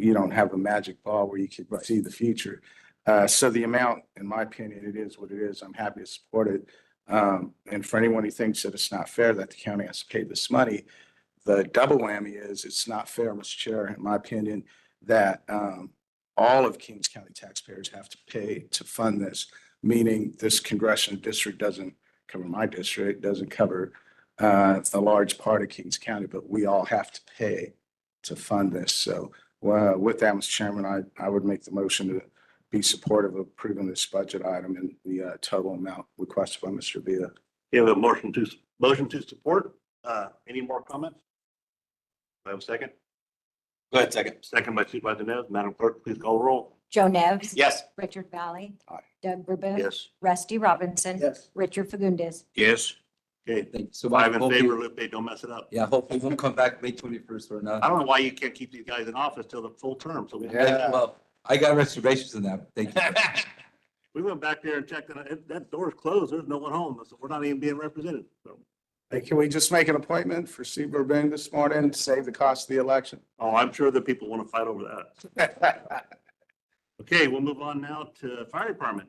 you don't have a magic ball where you can see the future. Uh, so the amount, in my opinion, it is what it is. I'm happy to support it. Um, and for anyone who thinks that it's not fair that the county has to pay this money, the double whammy is it's not fair, Mr. Chair, in my opinion, that, um, all of Kings County taxpayers have to pay to fund this, meaning this congressional district doesn't cover my district, doesn't cover, uh, a large part of Kings County, but we all have to pay to fund this. So, uh, with that, Mr. Chairman, I, I would make the motion to be supportive of approving this budget item and the, uh, total amount requested by Mr. Villa. We have a motion to, motion to support. Uh, any more comments? Do I have a second? Go ahead, second. Second by Supervisor Nev. Madam Clerk, please call roll. Joe Nevs. Yes. Richard Valley. Aye. Doug Verboon. Yes. Rusty Robinson. Yes. Richard Fagundes. Yes. Okay, Thank you so much. five in Hopefully- favor, Lupe, don't mess it up. Yeah, hopefully we'll come back May twenty-first or I not. don't know why you can't keep these guys in office till the full term, so we. Yeah. Well, I got reservations on that. Thank you. We went back there and checked, and it- that door's closed, there's no one home, so we're not even being represented, so. Hey, can we just make an appointment for Steve Burbank this morning, to save the cost of the election? Oh, I'm sure that people want to fight over that. Okay, we'll move on now to Fire Department.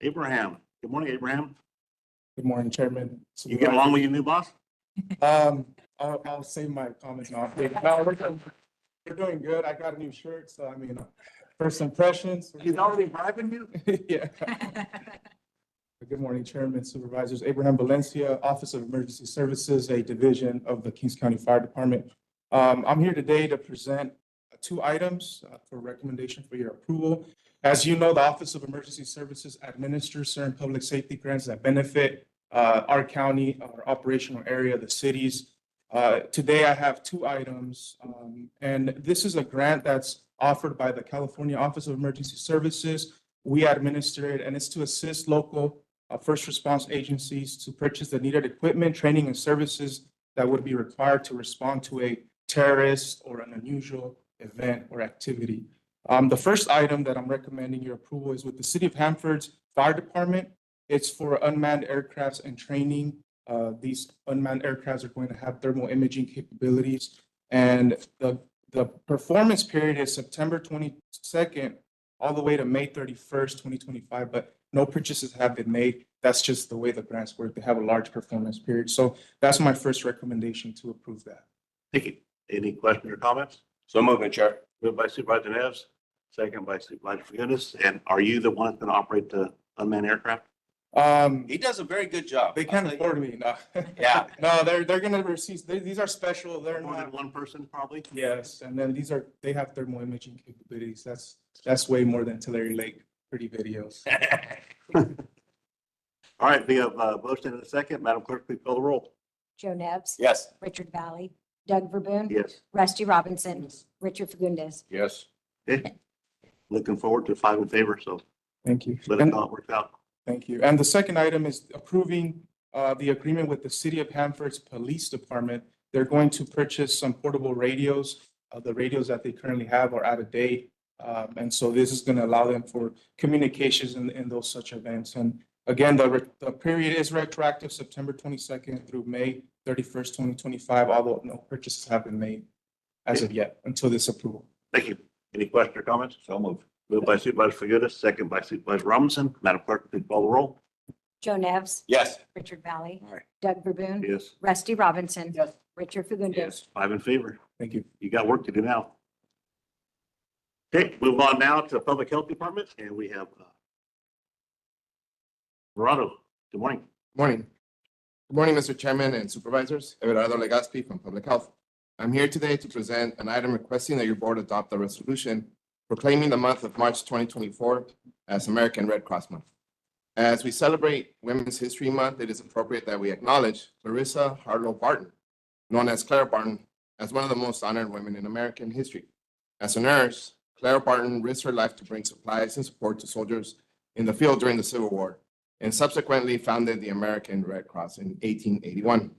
Abraham, good morning, Abraham. Good morning, Chairman. You get along with your new boss? Um, I'll, I'll save my comments now. No, we're doing- we're doing good. I got a new shirt, so I mean, uh, first impressions. He's already bribing you? Yeah. Good morning, Chairman, Supervisors. Abraham Valencia, Office of Emergency Services, a division of the Kings County Fire Department. Um, I'm here today to present two items uh, for recommendation for your approval. As you know, the Office of Emergency Services administers certain public safety grants that benefit uh, our county, our operational area, the cities. Uh, Today, I have two items, um, and this is a grant that's offered by the California Office of Emergency Services. We administer it, and it's to assist local uh, first response agencies to purchase the needed equipment, training, and services that would be required to respond to a terrorist or an unusual event or activity. Um, The first item that I'm recommending your approval is with the City of Hanford's Fire Department. It's for unmanned aircrafts and training. Uh, These unmanned aircrafts are going to have thermal imaging capabilities. And the, the performance period is September twenty-second all the way to May thirty-first, twenty twenty-five, but no purchases have been made. That's just the way the grants work. They have a large performance period. So that's my first recommendation to approve that. Thank you. Any questions or comments? So moving, Chair. Moved by Supervisor Neves, second by Supervisor Fagundes. And are you the one that's going to operate the unmanned aircraft? Um, He does a very good job. they can't afford me, no. Yeah. No, they're, they're gonna receive, they- these are special, they're More than not, one person, probably? yes, and then these are, they have thermal imaging capabilities. That's, that's way more than Tulare Lake pretty videos. All right, we have uh, motion and a second. Madam Clerk, please call the roll. Joe Nevs. Yes. Richard Valley. Doug Verboon. Yes. Rusty Robinson. Richard Fagundes. Yes. Looking forward to five in favor, so Thank you. let us And- know how it works out. Thank you. And the second item is approving uh, the agreement with the City of Hanford's Police Department. They're going to purchase some portable radios. Uh, The radios that they currently have are out of date. Um, And so this is going to allow them for communications in, in those such events. And again, the, re- the period is retroactive September 22nd through May 31st, 2025, although no purchases have been made as of yet until this approval. Thank you. Any questions or comments? So moved. Moved by Supervisor Fagundes, second by Supervisor Robinson. Madam Clerk, please call the roll. Joe Nevs. Yes. Richard Valley. Aye. Doug Verboon. Yes. Rusty Robinson. Yes. Richard Fagundes. Five in favor. Thank you. You got work to do now. Okay, move on now to the Public Health Department, and we have uh, Verano, good morning. Morning. Good morning, Mr. Chairman and Supervisors. Everardo Legaspi from Public Health. I'm here today to present an item requesting that your board adopt a resolution proclaiming the month of March 2024 as American Red Cross Month. As we celebrate Women's History Month, it is appropriate that we acknowledge Clarissa Harlow Barton, known as Clara Barton, as one of the most honored women in American history. As a nurse, Clara Barton risked her life to bring supplies and support to soldiers in the field during the Civil War and subsequently founded the American Red Cross in 1881.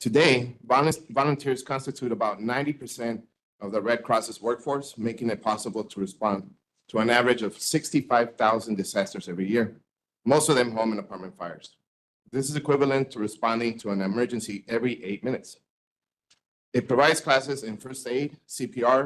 Today, volun- volunteers constitute about 90% of the Red Cross's workforce, making it possible to respond to an average of 65,000 disasters every year, most of them home and apartment fires. This is equivalent to responding to an emergency every eight minutes. It provides classes in first aid, CPR,